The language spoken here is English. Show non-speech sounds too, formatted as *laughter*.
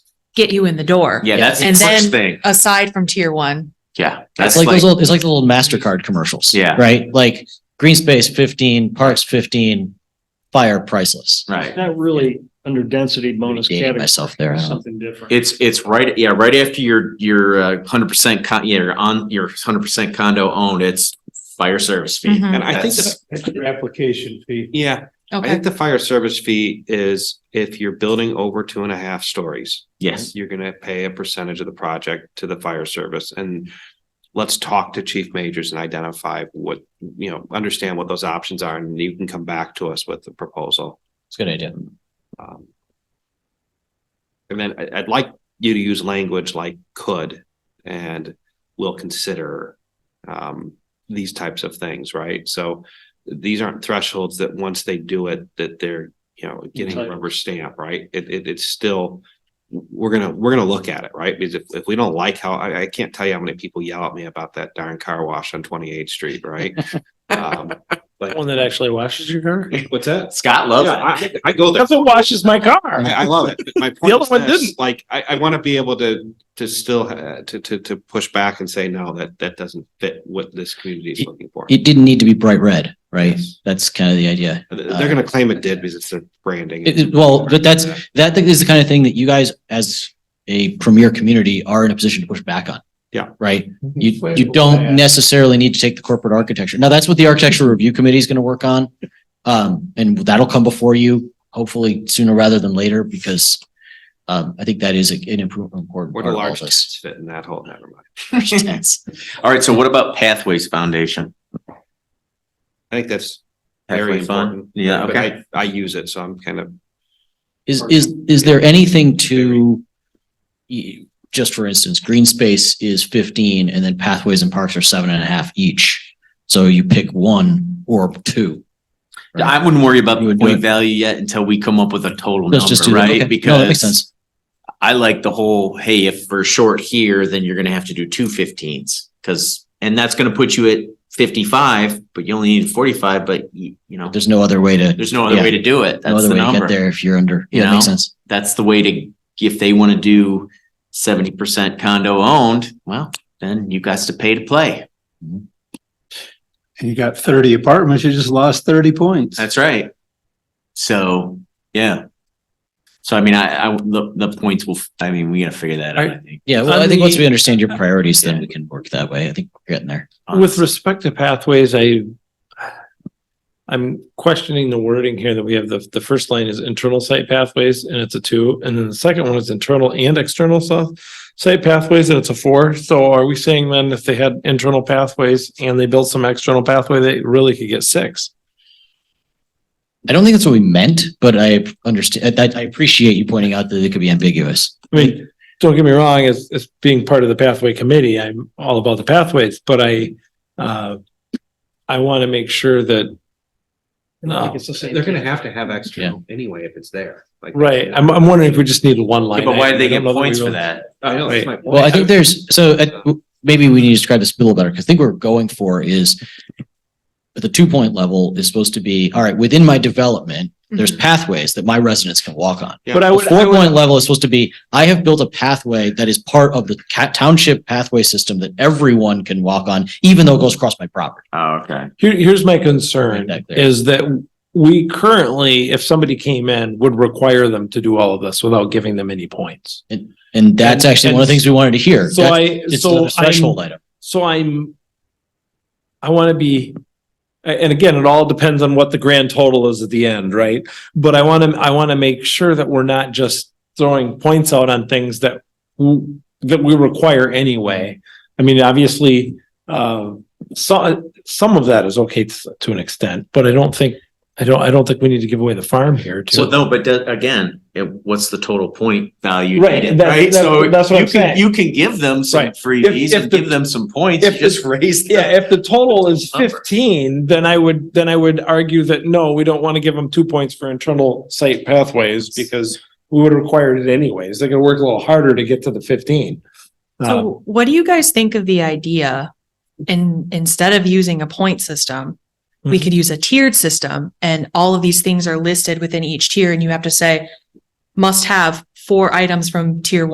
get you in the door. Yeah, that's Yes. the And first then- thing. Aside from tier one, Yeah, It's that's like like, those, old- it's like the little MasterCard commercials. Yeah. Right? Like green space fifteen, parks fifteen, fire priceless. right. Not really under density bonus Dating category. myself there, I don't know. Something different. It's, it's right, yeah, right after your, your uh, hundred percent con, yeah, you're on, your hundred percent condo owned, it's fire service fee. Mm-hmm. Mhm. And I think That's- the Extra application fee. yeah, I okay, *laughs* think the fire service fee is if you're building over two and a half stories. Yes, You're gonna pay a percentage of the project to the fire service and let's talk to chief majors and identify what, you know, understand what those options are and you can come back to us with the proposal. It's a good idea. Um, And then I, I'd like you to use language like could and will consider um, these types of things, right? So these aren't thresholds that once they do it, that they're, you know, getting a Entitled. rubber stamp, right? It, it, it's still, we're gonna, we're gonna look at it, right? Because if, if we don't like how, I, I can't tell you how many people yell at me about that darn car wash on twenty-eighth *laughs* street, right? Um, One that actually washes your car? What's that? Scott Yeah, loves it. I, I go there. That's what washes my car. I, I love it. but *laughs* My The point other is one this, didn't. like, I, I want to be able to, to still, uh, to, to, to push back and say, no, that, that doesn't fit what this community is looking for. It didn't need to be bright red, right? Yes. That's kind of the idea. They're going to claim it did because it's their branding. It- it- well, but that's, that thing is the kind of thing that you guys as a premier community are in a position to push back on. Yeah. Right? You, you don't necessarily need to take the corporate architecture. Now, that's what the architectural review committee is going to work on. Um, and that'll come before you hopefully sooner rather than later because um, I think that is a- an improvement important part What do of all large this. tents fit in that hole? Never mind. Tents. All right, so what about Pathways Foundation? I think that's Pathway very important. Fund? Yeah, But okay. I, I use it, so I'm kind of, Is, is, is there anything to, y- just for instance, green space is fifteen and then pathways and parks are seven and a half each. So you pick *laughs* Mm-hmm. one or two. right? I wouldn't worry about the You would do point it. value yet until we come up with a total Let's just number, do that. Okay. right? No, that makes Because sense. I like the whole, hey, if we're short here, then you're gonna have to do two fifteens, cause, and that's gonna put you at fifty-five, but you only need forty-five, but you, you know, There's no other way to, there's no other yeah. way to do it. no That's other the way to get number. there if you're under, You yeah, that makes know? sense. That's the way to, if they wanna do seventy percent condo owned, well, then you guys to pay to play. and you got thirty apartments, you just lost thirty points. That's right. So, yeah. So I mean, I, I, the, the points will, I mean, we gotta figure that out, I think. Yeah, well, On I think once the- we understand your priorities, then we can work that way. I think we're getting there. With respect to pathways, I I'm questioning the wording here that we have the, the first line is internal site pathways and it's a two. And then the second one is internal and external south site pathways and it's a four. So are we saying then if they had internal pathways and they built some external pathway, they really could get six? I don't think that's what we meant, but I understand, I, I appreciate you pointing out that it could be ambiguous. I mean, don't get me wrong, as, as being part of the pathway committee, I'm all about the pathways, but I, uh, I want to make sure that. uh, No, they're going to have to have external external anyway if it's there. Like, right, I'm, I'm wondering if we just needed one line. But why do they get item. I don't know points we for really- that? I know, Right. that's my point. Well, I think there's, so uh, maybe we need to describe this a little better, because I think what we're going for is at the two-point level is supposed to be, all right, within my development, there's pathways that my residents can walk on. But Mm-hmm. The I would, I would, four-point level is supposed to be, I have built a pathway that is part of the ca- township pathway system that everyone can walk on, even though it goes across my property. Oh, okay. here, here's my concern Right back there. is that we currently, if somebody came in, would require them to do all of this without giving them any points. And that's And- actually one of the and things we wanted to hear. So That's- I, It's so the I'm threshold item. So I'm, I want to be, a- and again, it all depends on what the grand total is at the end, right? But I want to, I want to make sure that we're not just throwing points out on things that, w- that we require anyway. I mean, obviously, uh, so, some of that is okay to, to an extent, but I don't think, I don't, I don't think we need to give away the farm here So to. no, but that- again, it, what's the total point value? Right, needed, that- right? that's- So that's what you I'm can- saying. You can give them some Right. freebies if and the- give them some points, you if the- just raise. the- Yeah, if the total is Number. fifteen, then I would, then I would argue that, no, we don't want to give them two points for internal site pathways because we would require it anyways. They're gonna work a little harder to get to the fifteen. Um, so what do you guys think of the idea? And instead of using a point system, we Mhm. could use a tiered system and all of these things are listed within each tier and you have to say, must have four items from tier one.